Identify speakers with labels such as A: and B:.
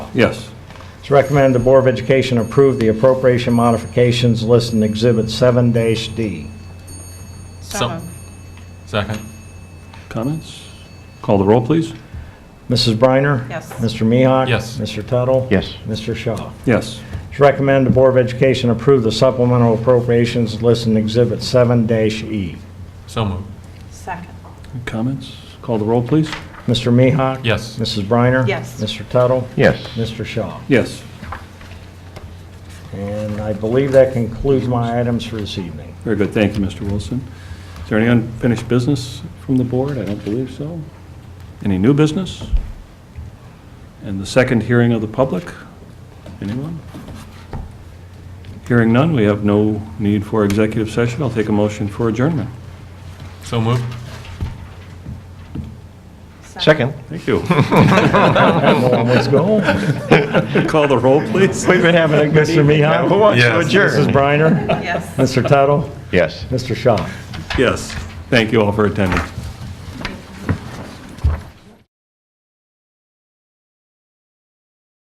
A: Yes.
B: It's recommended the Board of Education approve the appropriation modifications listed in Exhibit 7-D.
C: So-
D: So moved.
C: Second?
A: Comments? Call the roll, please.
B: Mrs. Briner?
D: Yes.
B: Mr. Mihawk?
C: Yes.
B: Mr. Tuttle?
E: Yes.
B: Mr. Shaw.
A: Yes.
B: It's recommended the Board of Education approve the supplemental appropriations listed in Exhibit E. 7-E.
C: So moved.
D: Second.
A: Comments? Call the roll, please.
B: Mr. Mihawk?
C: Yes.
B: Mrs. Briner?
D: Yes.
B: Mr. Tuttle?
E: Yes.
B: Mr. Shaw.
A: Yes.
B: And I believe that concludes my items for this evening.
A: Very good. Thank you, Mr. Wilson. Is there any unfinished business from the board? I don't believe so. Any new business? And the second hearing of the public? Anyone? Hearing none, we have no need for executive session. I'll take a motion for adjournment.
C: So moved.
E: Second.
A: Thank you.
B: Let's go.
A: Call the roll, please.
B: We've been having a good Mr. Mihawk?
E: Who wants to
C: Yes.
B: Mrs.
E: adjourn?
B: Briner?
D: Yes.
B: Mr. Tuttle?
E: Yes.
B: Mr. Shaw.
A: Yes. Thank you all for attending.